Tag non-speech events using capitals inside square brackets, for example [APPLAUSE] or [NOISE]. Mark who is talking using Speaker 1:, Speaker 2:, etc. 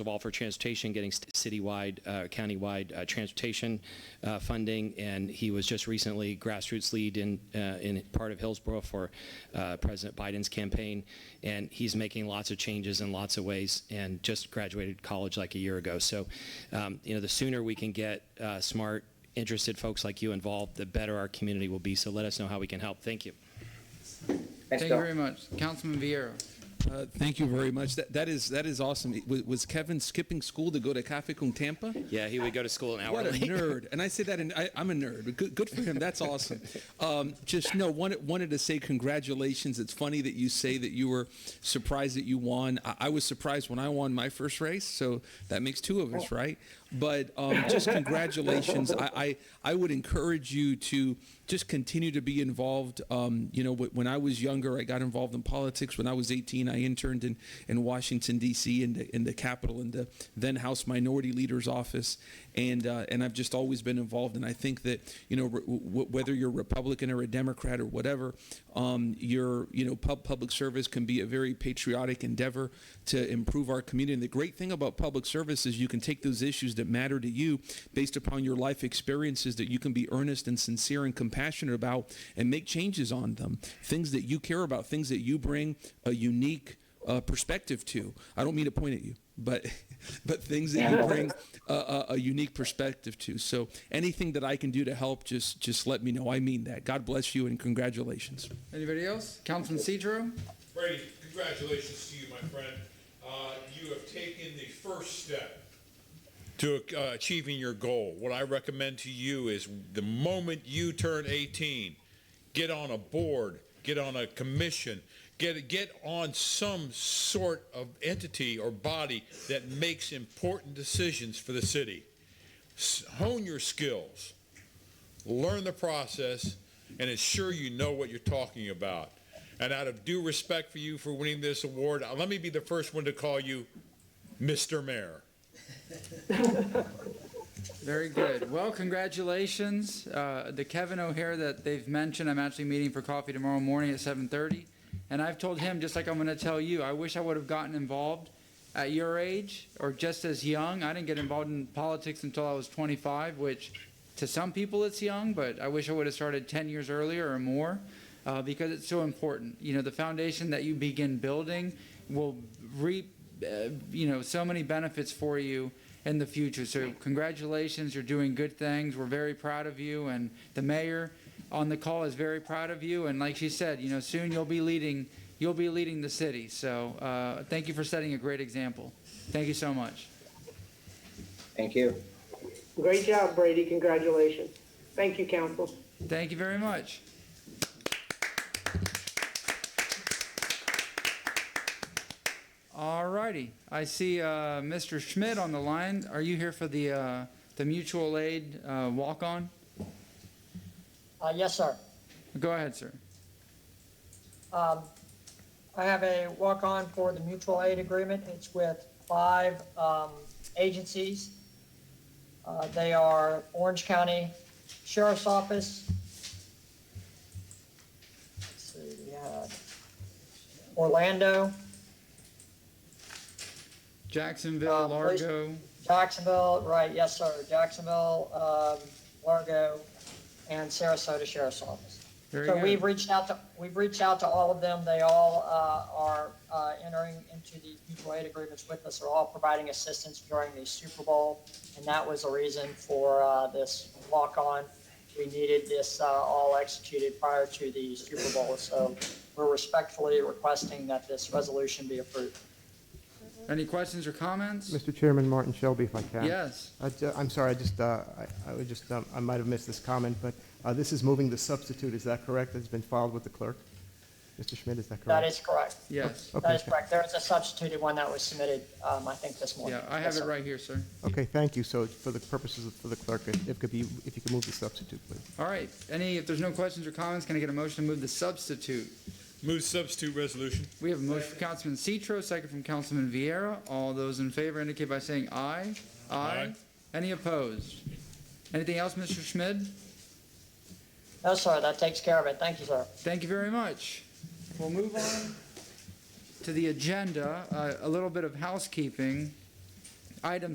Speaker 1: of all for transportation, getting st- citywide, uh, countywide uh, transportation uh, funding, and he was just recently grassroots lead in uh, in part of Hillsborough for uh, President Biden's campaign, and he's making lots of changes in lots of ways, and just graduated college like a year ago. So, um, you know, the sooner we can get uh, smart, interested folks like you involved, the better our community will be. So, let us know how we can help. Thank you.
Speaker 2: Thanks,
Speaker 3: Thank you
Speaker 2: Bill.
Speaker 3: very much. Councilman Vieira.
Speaker 4: Uh, Thank you very much. That, that is that is awesome. It- Was, was Kevin skipping school to go to Cafe Con Tampa?
Speaker 1: Yeah, he would go to school an hour
Speaker 4: What a
Speaker 1: late.
Speaker 4: nerd! And I say that, and I'm a nerd. but Good, good for him. That's awesome. Um, just no, wanted wanted to say congratulations. It's funny that you say that you were surprised that you won. I, I was surprised when I won my first race, so that makes two of us, right? But um, just congratulations. I, I I would encourage you to just continue to be involved. Um, you know, wh- when I was younger, I got involved in politics. When I was 18, I interned in in Washington D.C. in the in the Capitol in the then House Minority Leader's office, and uh, and I've just always been involved. And I think that you know re- w- whether you're Republican or a Democrat or whatever, um, your you know pub- public service can be a very patriotic endeavor to improve our community. And the great thing about public service is you can take those issues that matter to you based upon your life experiences that you can be earnest and sincere and compassionate about and make changes on them. Things that you care about, things that you bring a unique uh, perspective to. I don't mean to point at you, but [LAUGHS] but things that you bring a, a, a unique perspective to. So anything that I can do to help, just just let me know. I mean that. God bless you and congratulations.
Speaker 3: Anybody else? Councilman Cedro?
Speaker 5: Brady, congratulations to you, my friend. Uh, you have taken the first step to uh, achieving your goal. What I recommend to you is the moment you turn 18, get on a board, get on a commission, get get on some sort of entity or body that makes important decisions for the city. S- hone your skills learn the process, and ensure you know what you're talking about. And out of due respect for you for winning this award, uh, let me be the first one to call you Mr. Mayor.
Speaker 3: Very good. Well, congratulations. Uh, the Kevin O'Hare that they've mentioned, I'm actually meeting for coffee tomorrow morning at 7:30. And I've told him, just like I'm going to tell you, I wish I would have gotten involved at your age or just as young. I didn't get involved in politics until I was 25, which to some people it's young, but I wish I would have started 10 years earlier or more uh, because it's so important. You know, the foundation that you begin building will reap uh, you know so many benefits for you in the future. So congratulations, you're doing good things. We're very proud of you, and the mayor on the call is very proud of you. And like she said, you know soon you'll be leading you'll be leading the city. So uh, thank you for setting a great example. Thank you so much.
Speaker 2: Thank you.
Speaker 6: Great job, Brady. Congratulations. Thank you, council.
Speaker 3: Thank you very much. All righty. I see uh, Mr. Schmidt on the line. Are you here for the, uh, the mutual aid uh, walk-on?
Speaker 7: Uh, Yes, sir.
Speaker 3: Go ahead, sir.
Speaker 7: Um, I have a walk-on for the mutual aid agreement. It's with five um, agencies. Uh, They are Orange County Sheriff's Office. Let's see, we had Orlando,
Speaker 3: Jacksonville,
Speaker 7: Uh, please-
Speaker 3: Largo,
Speaker 7: Jacksonville, right, yes, sir, Jacksonville, um, Largo, and Sarasota Sheriff's Office.
Speaker 3: Very
Speaker 7: So
Speaker 3: good.
Speaker 7: we've reached out to, we've reached out to all of them. They all uh, are uh, entering into these mutual aid agreements with us. They're all providing assistance during the Super Bowl. And that was the reason for uh, this walk-on. We needed this uh, all executed prior to the Super Bowl. So we're respectfully requesting that this resolution be approved.
Speaker 3: Any questions or comments?
Speaker 8: Mr. Chairman, Martin Shelby, if I can.
Speaker 3: Yes.
Speaker 8: I ju- I'm sorry, I just, uh, I I would just, um, I might have missed this comment, but uh, this is moving the substitute, is that correct? It's been filed with the clerk? Mr. Schmidt, is that correct?
Speaker 7: That is correct.
Speaker 3: Yes.
Speaker 8: Okay,
Speaker 7: That is
Speaker 8: okay.
Speaker 7: correct. There is a substituted one that was submitted, um, I think this morning.
Speaker 3: Yeah, I
Speaker 7: Yes,
Speaker 3: have it
Speaker 7: sir.
Speaker 3: right here, sir.
Speaker 8: Okay, thank you. So for the purposes of, for the clerk, if if could be, if you could move the substitute, please.
Speaker 3: All right. Any, if there's no questions or comments, can I get a motion to move the substitute?
Speaker 5: Move substitute resolution.
Speaker 3: We have a motion from Councilman Citro, second from Councilman Vieira. All those in favor indicate by saying aye.
Speaker 5: Aye.
Speaker 3: Any opposed? Anything else, Mr. Schmidt?
Speaker 7: No, sir, that takes care of it. Thank you, sir.
Speaker 3: Thank you very much. We'll move on to the agenda, Uh, a little bit of housekeeping. item